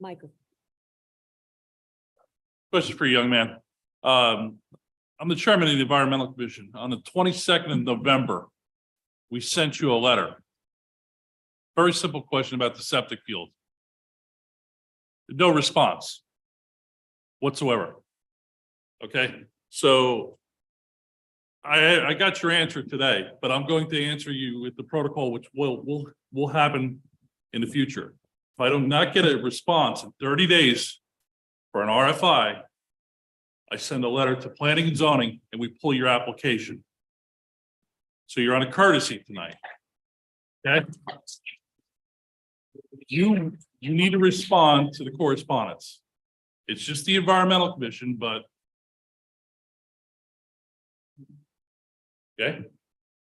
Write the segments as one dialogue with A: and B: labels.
A: Michael.
B: Question for you, young man. Um, I'm the chairman of the Environmental Commission. On the twenty-second of November, we sent you a letter. Very simple question about the septic field. No response whatsoever. Okay, so I, I got your answer today, but I'm going to answer you with the protocol, which will, will, will happen in the future. If I do not get a response in thirty days, for an RFI, I send a letter to planning and zoning and we pull your application. So you're on a courtesy tonight. Okay? You, you need to respond to the correspondence. It's just the environmental commission, but. Okay,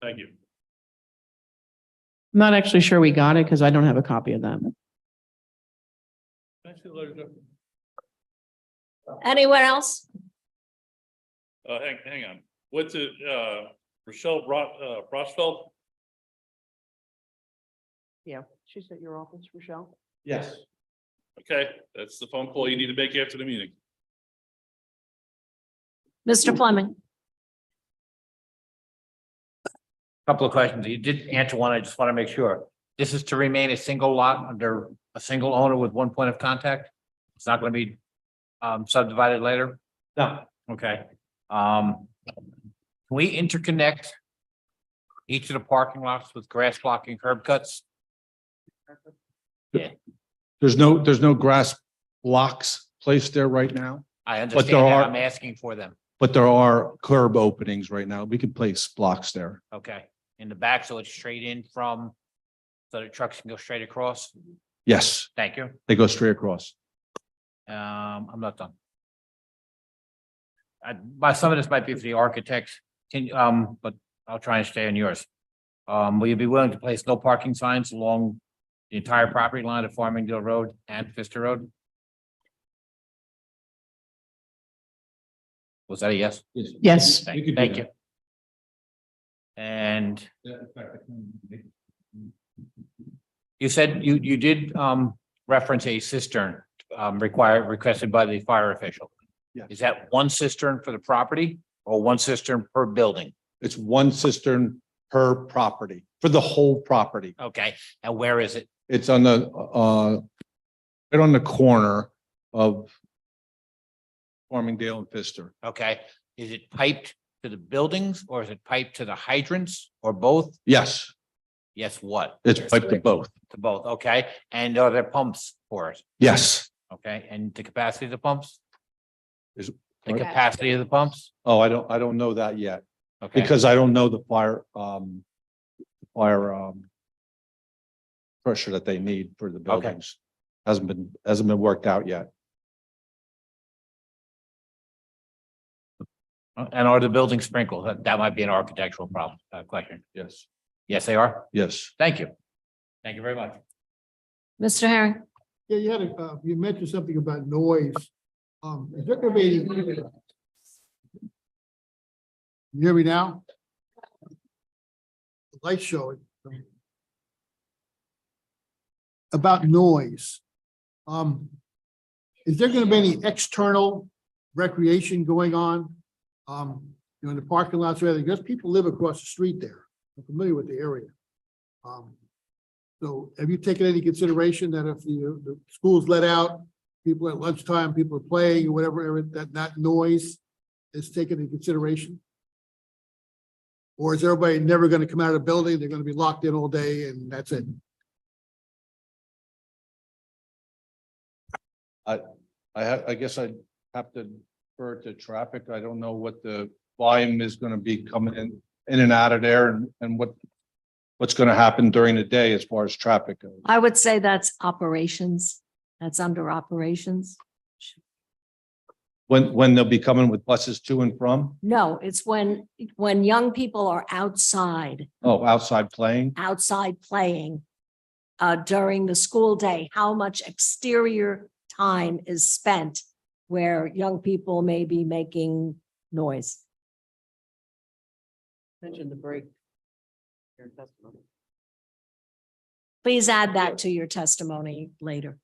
B: thank you.
C: I'm not actually sure we got it because I don't have a copy of that.
B: Can I see the letter, Jeff?
A: Anyone else?
B: Uh, hang, hang on. What's it, uh, Rochelle Ro- uh, Rochfeld?
C: Yeah, she's at your office, Rochelle.
D: Yes.
B: Okay, that's the phone call you need to make after the meeting.
A: Mr. Fleming?
D: Couple of questions. You did answer one. I just want to make sure. This is to remain a single lot under a single owner with one point of contact? It's not going to be um, subdivided later? No. Okay. Um, can we interconnect each of the parking lots with grass blocking curb cuts?
E: There's no, there's no grass blocks placed there right now,
D: I
E: there
D: understand that.
E: are-
D: I'm asking for them.
E: but there are curb openings right now. We can place blocks there.
D: Okay. In the back, so it's straight in from so the trucks can go straight across.
E: Yes,
D: Thank you.
E: they go straight across.
D: Um, I'm not done. I, my, some of this might be for the architects, can, um, but I'll try and stay on yours. Um, will you be willing to place no parking signs along the entire property line of Farmingdale Road and Fister Road? Was that a yes?
C: Yes,
D: Thank thank you. And you said you, you did, um, reference a cistern, um, required, requested by the fire official.
E: Yes.
D: Is that one cistern for the property or one cistern per building?
E: It's one cistern per property, for the whole property.
D: Okay, and where is it?
E: It's on the, uh, right on the corner of Farmingdale and Pfister.
D: Okay, is it piped to the buildings or is it piped to the hydrants or both?
E: Yes,
D: Yes, what?
E: it's piped to both.
D: To both, okay, and are there pumps for it?
E: Yes.
D: Okay, and the capacity of the pumps?
E: Is-
D: The capacity of the pumps?
E: Oh, I don't, I don't know that yet
D: Okay.
E: because I don't know the fire, um, fire, um, pressure that they need for the buildings. Hasn't been, hasn't been worked out yet.
D: And are the buildings sprinkled? That, that might be an architectural problem, uh, question.
E: Yes.
D: Yes, they are.
E: Yes.
D: Thank you. Thank you very much.
A: Mr. Herring?
F: Yeah, you had, a- uh, you mentioned something about noise. Um, is there gonna be? You hear me now? The Light showing. About noise. Um, is there gonna be any external recreation going on? Um, you know, in the parking lots, rather, because people live across the street there. I'm familiar with the area. Um, so have you taken any consideration that if the, uh, the school's let out, people at lunchtime, people are playing or whatever, that, that noise is taken into consideration? Or is everybody never gonna come out of the building? They're gonna be locked in all day and that's it?
E: I ha- I guess I have to defer to traffic. I don't know what the volume is gonna be coming in, in and out of there and, and what, what's gonna happen during the day as far as traffic goes.
A: I would say that's operations. That's under operations.
E: When, when they'll be coming with buses to and from,
A: No, it's when, when young people are outside,
E: oh, outside playing,
A: outside playing uh, during the school day, how much exterior time is spent where young people may be making noise.
G: Mention the break. Your testimony.
A: Please add that to your testimony later.